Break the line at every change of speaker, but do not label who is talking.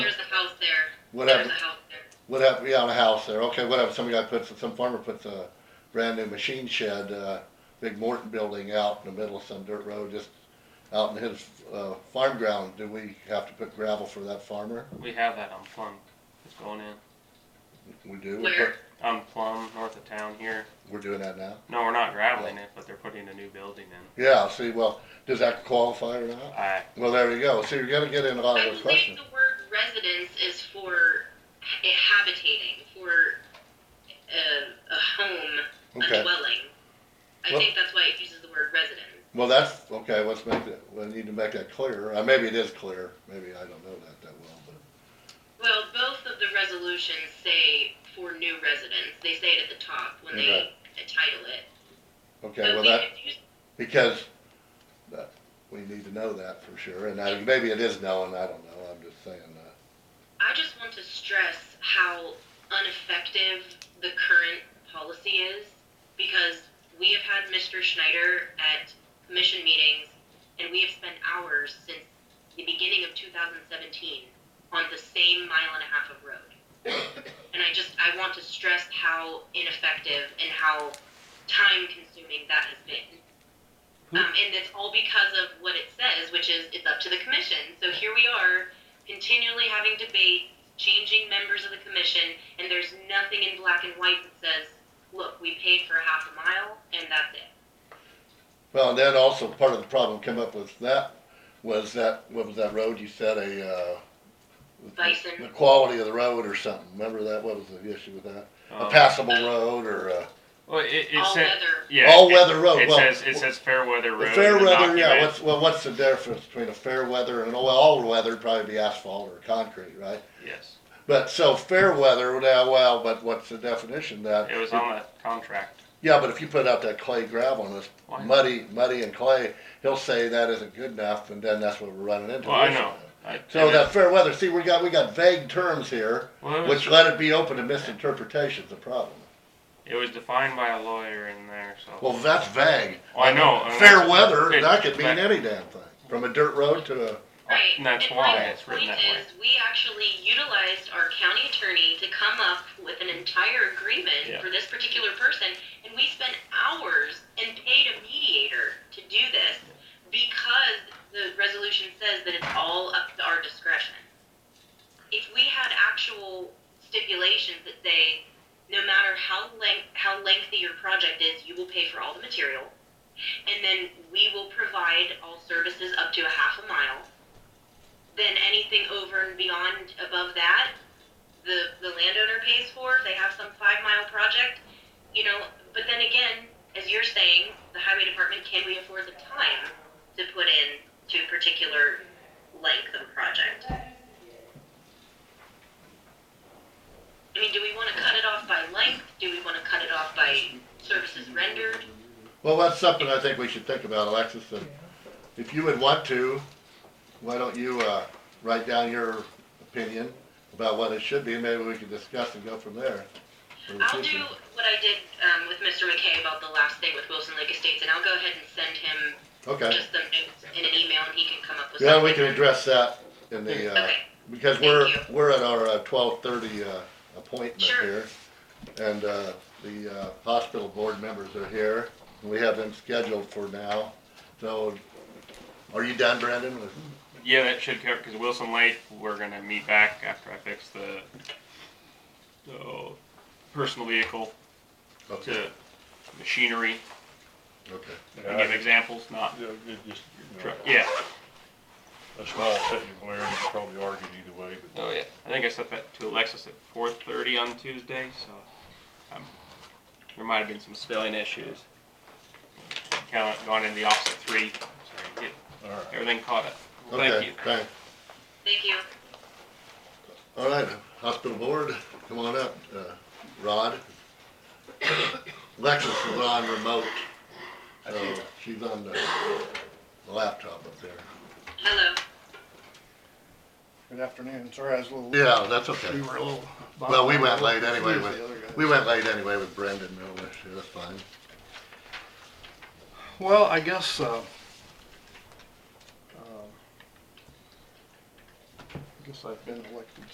house there.
What
There's
happened,
a house there.
what happened, yeah, on a house there, okay, what happened, some guy puts, some farmer puts a brand new machine shed, uh, big Morton building out in the middle of some dirt road, just out in his, uh, farm ground, do we have to put gravel for that farmer?
We have that on Plum. It's going in.
We do, we
Where?
put,
On Plum, north of town here.
we're doing that now?
No, we're not graveling it, but they're putting a new building in.
Yeah, see, well, does that qualify or not?
I,
Well, there you go, see, you're gonna get in Oh, a lot
I
of those
believe
questions.
the word residence is for ha- habitating, for a, a home, a
Okay,
dwelling. I
Well-
think that's why it uses the word residence.
well, that's, okay, let's make that, we need to make that clearer, uh, maybe it is clear, maybe I don't know that that well, but.
Well, both of the resolutions say for new residents. They say it at the top when they
Okay.
title it.
Okay, well,
we
that,
could use-
because that, we need to know that for sure, and I, maybe it is known, I don't know, I'm just saying uh, that.
I just want to stress how ineffective the current policy is because we have had Mr. Schneider at commission meetings and we have spent hours since the beginning of 2017 on the same mile and a half of road. and I just I want to stress how ineffective and how time consuming that has been. Um, and that's all because of what it says, which is it's up to the commission. So here we are continually having debates, changing members of the commission, and there's nothing in black and white that says, look, we paid for half a mile, and that's it.
Well, and then also, part of the problem come up with that was that, what was that road you said, a, uh,
Bison.
The quality of the road or something, remember that, what was the issue with that? A
um,
passable road or uh, a,
well, it, it
All
said,
weather.
yeah,
All
it-
weather road,
It
well,
says it says Fairweather Road.
a
in
fair
the
weather, yeah,
document.
what's, well, what's the difference between a fair weather and, well, all weather would probably be asphalt or concrete, right?
yes,
But, so fair weather, now, well, but what's the definition of that?
it was on that contract.
Yeah, but if you put out that clay gravel and it's
Why?
muddy, muddy and clay, he'll say that isn't good enough, and then that's what we're running into.
Well, I know. I,
So
and it-
that fair weather, see, we got, we got vague terms here,
well, it was,
which let it be open to misinterpretation's the problem.
it was defined by a lawyer in there. So
Well, that's vague.
Well, I know. and
Fair
that's-
weather,
it-
that could mean
that-
any damn thing, from a dirt road to a,
Right.
And that's
And
why
my
it's written
point
that way.
is, We actually utilized our county attorney to come up with an entire agreement
Yeah.
for this particular person, and we spent hours and paid a mediator to do this because the resolution says that it's all up to our discretion. If we had actual stipulations that say, no matter how length, how lengthy your project is, you will pay for all the material, and then we will provide all services up to a half a mile. Then anything over and beyond above that, the, the landowner pays for if they have some five mile project, you know, but then again, as you're saying, the highway department, can we afford the time to put in to a particular length of a project? I mean, do we wanna cut it off by length? Do we wanna cut it off by services rendered?
well, that's something I think we should think about, Alexis, and if you would want to, why don't you, uh, write down your opinion about what it should be, and maybe we can discuss and go from there. for the
I'll do
future.
what I did um, with Mr. McKay about the last thing with Wilson Lake Estates, and I'll go ahead and send him
Okay,
just some notes in an email, and he can come up with
yeah,
something.
we can address that in the, uh,
Okay,
Because
Thank
we're,
you.
we're at our uh, twelve thirty uh, appointment
Sure.
here. And uh, the uh, hospital board members are here. We have them scheduled for now. So are you done, Brandon? with-
yeah, that should cover because Wilson Lake. We're gonna meet back after I fix the the personal vehicle
Okay,
to machinery.
okay.
I give examples, not
Yeah, it just, you know,
truck. Yeah.
a small technical area, you could probably argue either way, but
Oh yeah. I think I set that to Alexis at 4:30 on Tuesday, so um, there might have been some spelling issues. Count gone into the office at three. So get
all right.
everything caught up. Well, Thank
Okay,
you.
thanks.
thank you.
All right, hospital board, come on up. Uh, Rod. Alexis is on remote. So she's on the the laptop up there.
Hello.
Good afternoon, sorry, I was a little.
Yeah, that's okay.
We were a little.
Well, we went late anyway,
Confused
with-
the other guys.
We went late anyway with Brendan, no issue, that's fine.
Well, I guess, uh, um, I guess I've been elected